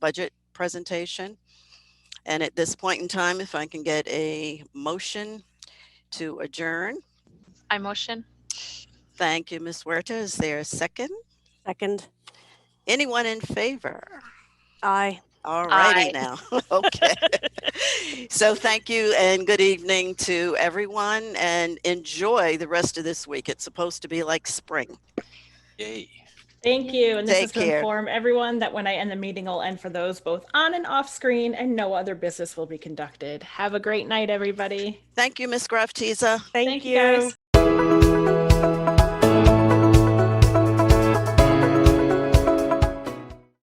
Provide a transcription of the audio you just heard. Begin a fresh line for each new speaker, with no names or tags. budget presentation. And at this point in time, if I can get a motion to adjourn.
I motion.
Thank you, Ms. Huerta. Is there a second?
Second,
Anyone in favor?
aye.
All
Aye.
righty now. Okay. So thank you and good evening to everyone and enjoy the rest of this week. It's supposed to be like spring.
Yay.
Thank you. And this
Take
is to
care.
inform everyone that when I end the meeting, I'll end for those both on and off screen and no other business will be conducted. Have a great night, everybody.
Thank you, Ms. Graftiza.
Thank
guys.
you.